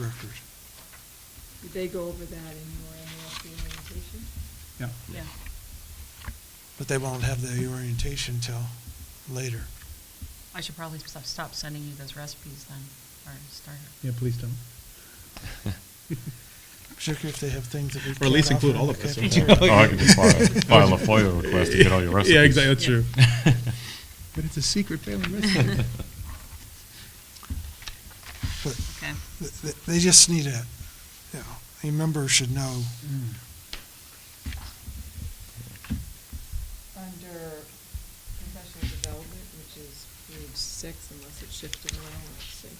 record. Did they go over that in your annual orientation? Yeah. Yeah. But they won't have the orientation till later. I should probably stop, stop sending you those recipes then, or start. Yeah, please don't. Particularly if they have things that we. Or at least can't offer include all in of us. the in cafeteria. that. Oh, I could just file, file a FOIA request to get all your recipes. Yeah, exactly, that's Yeah. true. But it's a secret family recipe. But Okay. th- th- They just need a, you know, a member should know. Mm. Under professional development, which is page six, unless it shifted around, let's see.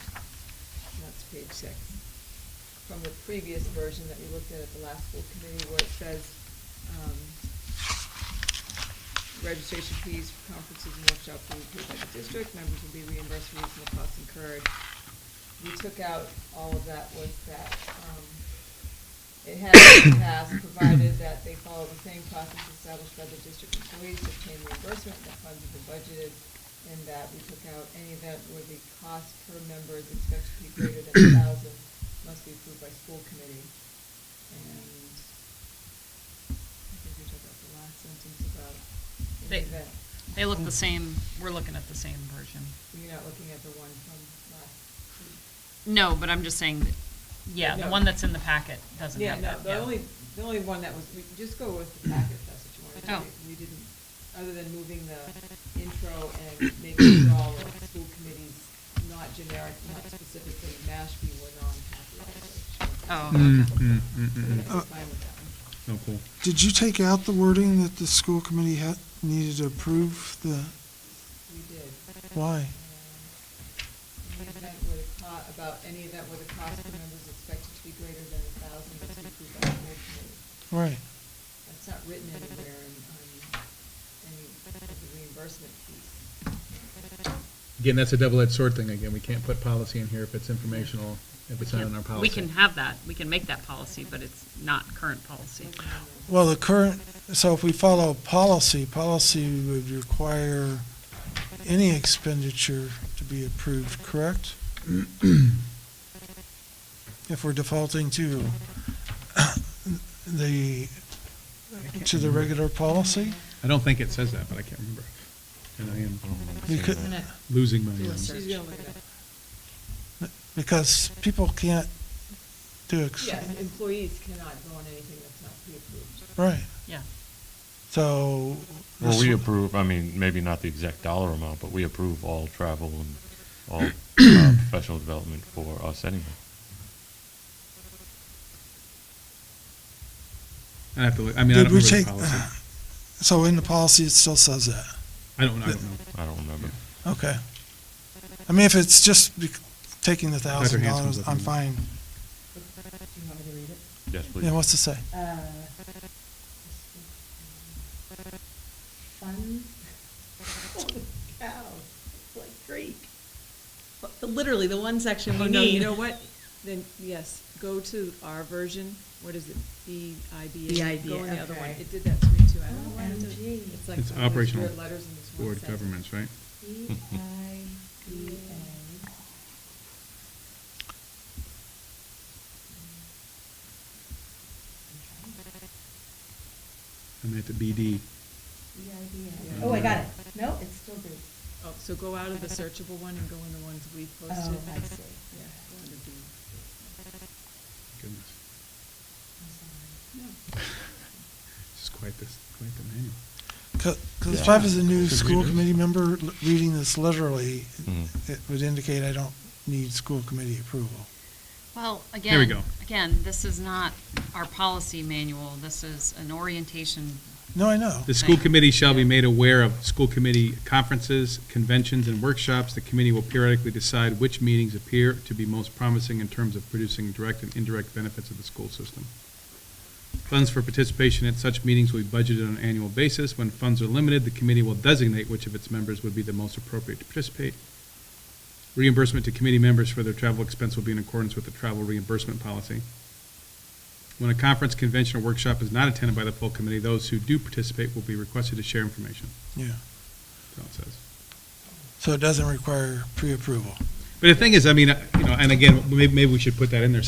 That's page six. From the previous version that we looked at at the last school committee, where it says, um, registration fees for conferences and workshops will be paid by the district, members will be reimbursed for reasonable costs incurred. We took out all of that was that, um, It has in the past provided that they follow the same process established by the district employees to obtain reimbursement, that funds have been budgeted, and that we took out any event where the cost per member is expected to be greater than a thousand must be approved by school committee. And I think we took out the last sentence about They- any event. They look the same, we're looking at the same version. You're not looking at the one from last. No, but I'm just saying, that yeah, the No. one that's in the packet doesn't have Yeah, no, that, yeah. the only, the only one that was, we just go with the packet, if that's what you want to do. Oh. We didn't, other than moving the intro and making it all of school committees not generic, not specifically Mashpee, were non-copyrighted. Oh, Mm, okay. mm, mm, mm, mm. I'm fine with that one. Oh, cool. Did you take out the wording that the school committee had, needed to approve the, We did. why? Um, Any event where the co, about any event where the cost per member is expected to be greater than a thousand, must be approved by the school committee. Right. That's not written anywhere in, on any of the reimbursement piece. Again, that's a double-edged sword thing again. We can't put policy in here if it's informational, if We it's not can't- in our policy. We can have that, we can make that policy, but it's not current policy. Well, the current, so if we follow policy, policy would require any expenditure to be approved, correct? If we're defaulting to the, to the regular policy? I don't think it says that, but I can't remember. And I am I don't remember We seeing could- that. losing my. Do a um, search. She's gonna look it up. Because people can't do, ex- Yeah, employees cannot go on anything that's not pre-approved. right, Yeah, so. Well, this we one- approve, I mean, maybe not the exact dollar amount, but we approve all travel and all uh, professional development for us anyway. I have to look, I mean, I Did don't we remember the take, policy. uh, so in the policy, it still says that? I don't, I don't know. I don't remember. Okay. I mean, if it's just bec- taking the Dr. thousand Hanson's dollars, I'm looking. fine. Do you want me to read it? Yes, please. Yeah, what's to say? Uh, Funds? Holy cow, it's like Greek. But the- Literally, the one section Oh, we no, you need. know what? Then, yes, go to our version, what is it, B E I B A? BIBA, Go on the other one, okay. it did that to me too, I don't know why it did. OMG. It's like It's all these operational weird letters in this one board sentence. governments, right? I meant the BD. Oh, I got it. No, it's still Greek. Oh, so go out of the searchable one and go in the ones we Oh, posted. I see. Yeah, go under B. Goodness. I'm No. This is quite this, quite the manual. Because Yeah. if I was a new Should we school do it? committee member l- reading this literally, Mhm. it would indicate I don't need school committee approval. well, again. There we go. Again, this is not our policy manual, this is an orientation, No, I know. The school Thank you. committee shall be made aware of school committee conferences, conventions, and workshops. The committee will periodically decide which meetings appear to be most promising in terms of producing direct and indirect benefits of the school system. Funds for participation at such meetings will be budgeted on an annual basis. When funds are limited, the committee will designate which of its members would be the most appropriate to participate. Reimbursement to committee members for their travel expense will be in accordance with the travel reimbursement policy. When a conference, convention, or workshop is not attended by the full committee, those who do participate will be requested to share information, Yeah. that's all it says. So it doesn't require pre-approval. But the thing is, I mean, uh, you know, and again, maybe, maybe we should put that in there